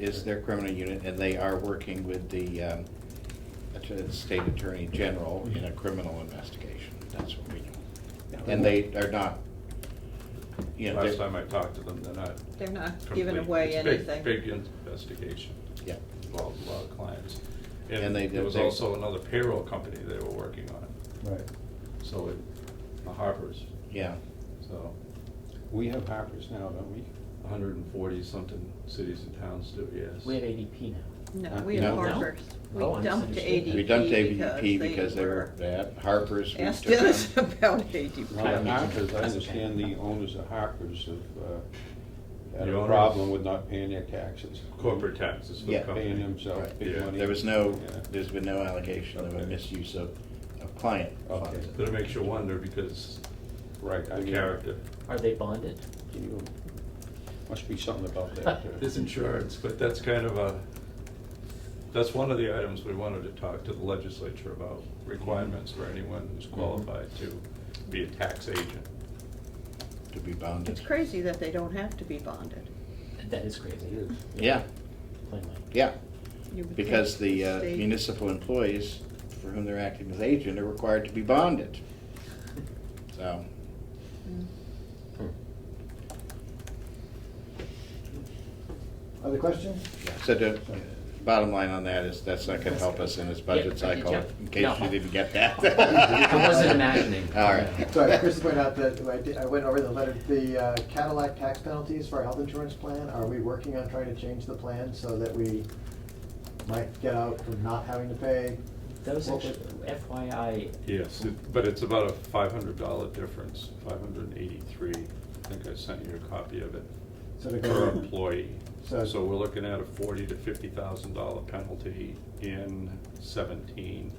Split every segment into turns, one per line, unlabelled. is their criminal unit, and they are working with the um, att- state attorney general in a criminal investigation. That's what we know. And they are not, you know,
Last
they're,
time I talked to them, they're not.
They're not
complete.
giving away
It's big-
anything.
Big investigation,
yeah,
involved a lot of clients.
And
And
they
there
did-
was
they-
also another payroll company they were working on,
Right.
so it, the Harper's,
yeah.
so
We have Harper's now, don't we?
hundred and forty something cities and towns do, yes.
We have ADP now.
No,
Huh?
we have
No.
Harper's. We
Oh, I
dumped
misunderstood that.
ADP.
We dumped AVP
ADP
because they were bad. Harper's. we
Asked
took
us
on.
about ADP.
Well, at Harper's, I
That's
understand
okay.
the owners of Harper's have uh, had
The
a
owners?
problem with not paying their taxes.
Corporate taxes for the
Yeah.
Paying
company.
themselves
Right.
big
Yeah.
money.
There was no,
Yeah.
there's been no allegation of a
Okay.
misuse of, of client
Okay.
funds.
But it makes you wonder because
Right, I
the
mean.
character
Are they bonded?
can you- Must be something about that. uh,
is insurance, but that's kind of a, that's one of the items we wanted to talk to the legislature about, requirements for anyone who's qualified to be a tax agent.
to be bounded.
It's crazy that they don't have to be bonded.
That is crazy.
It is.
Yeah,
Plainly.
yeah,
You would
because
think
the uh,
state-
municipal employees for whom they're acting as agent are required to be bonded. So,
Mm.
Other questions?
yeah. so the bottom line on that is that's not gonna help us in this budget
Yeah, I did,
cycle,
yeah.
in case
No.
you didn't get that.
I wasn't imagining.
All right.
Sorry, Chris pointed out that I did, I went over the letter, the uh, Cadillac tax penalties for our health insurance plan. Are we working on trying to change the plan so that we might get out from not having to pay?
Those
What was-
actually, FYI,
Yes, it- but it's about a five hundred dollar difference, five hundred and eighty-three, I think I sent you a copy of it,
So to
per
go,
employee.
So-
So we're looking at a forty to fifty thousand dollar penalty in seventeen,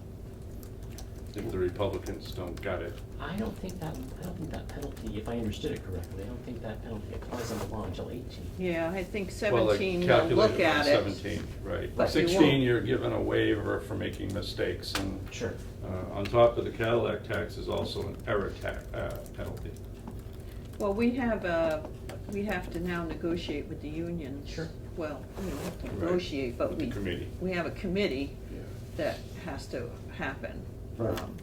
if the Republicans don't got it.
I don't think that, I don't think that penalty, if I understood it correctly, I don't think that penalty applies on the law until eighteen.
Yeah, I think
Well, they
seventeen, they'll
calculated
look
it on
at it.
Seventeen,
But you
right.
won't-
Sixteen, you're given a waiver for making mistakes, and
Sure.
uh, on top of the Cadillac tax is also an error tax, uh, penalty.
Well, we have, uh, we have to now negotiate with the union.
Sure.
Well, we don't have to
Right.
negotiate, but
With the
we,
committee.
we have a committee
Yeah.
that has to happen.
Right.
Um,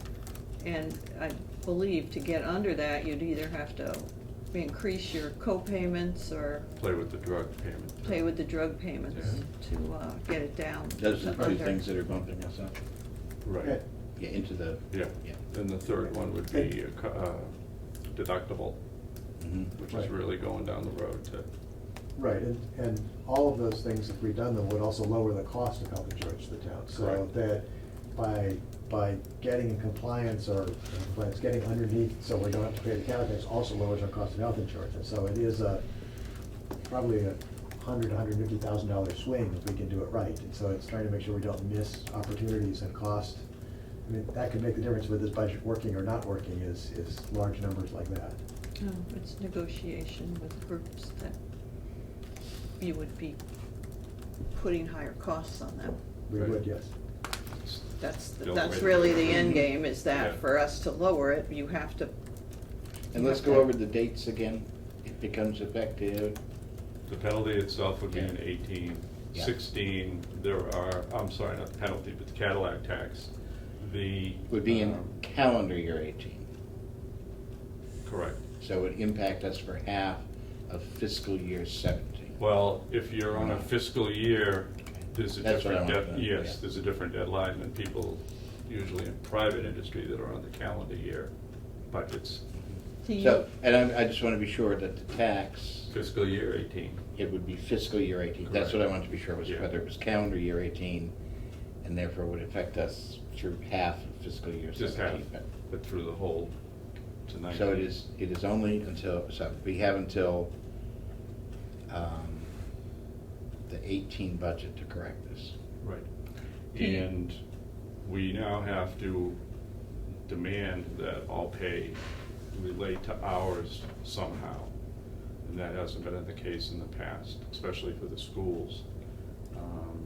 And I believe to get under that, you'd either have to increase your co-payments or
Play with the drug payment.
pay with the drug payments to uh, get it down.
Those are the two
under-
things that are bumping us up,
Right,
Okay.
yeah, into the,
yeah.
yeah.
And the third one would be a co- uh, deductible,
Mhm.
which is
Right.
really going down the road to,
right, and, and all of those things, if we done them, would also lower the cost of health insurance to the town. So
Correct.
that by, by getting in compliance or, by getting underneath, so we don't have to pay the Cadillac tax, also lowers our cost of health insurance. And so it is a, probably a hundred, hundred fifty thousand dollar swing if we can do it right. And so it's trying to make sure we don't miss opportunities and cost. I mean, that could make the difference with this budget working or not working is, is large numbers like that.
No, it's negotiation with groups that you would be putting higher costs on them.
We
Right.
would, yes.
That's, the-
Don't
that's
wait.
really the
Mm-hmm.
end game, is
Yeah.
that for us to lower it, you have to,
And let's go over the dates again, it becomes effective,
the penalty itself would be
Yeah.
in eighteen.
Yeah.
Sixteen, there are, I'm sorry, not the penalty, but the Cadillac tax, the.
would be in
um,
calendar year eighteen.
Correct.
So it would impact us for half of fiscal year 17.
Well, if you're on a fiscal year, there's a
That's what I
different,
wanted
dead-
to know,
yes,
yeah.
there's a different deadline than people usually in private industry that are on the calendar year budgets.
to you,
So, and I, I just want to be sure that the tax,
Fiscal year eighteen,
it would be fiscal year 18. That's what I
Correct.
wanted to be sure was,
Yeah.
whether it was calendar year 18, and therefore would affect us through half of fiscal year
just half,
17. But-
but through the whole tonight.
So it is, it is only until, so we have until um, the 18 budget to correct this.
Right.
Do you-
And we now have to demand that all pay relate to hours somehow. And that hasn't been the case in the past, especially for the schools. Um,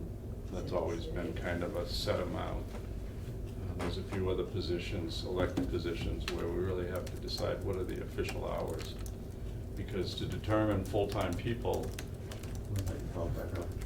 That's always been kind of a set amount. Uh, There's a few other positions, elected positions, where we really have to decide what are the official hours. Because to determine full-time people,
Well, that- well, that- well,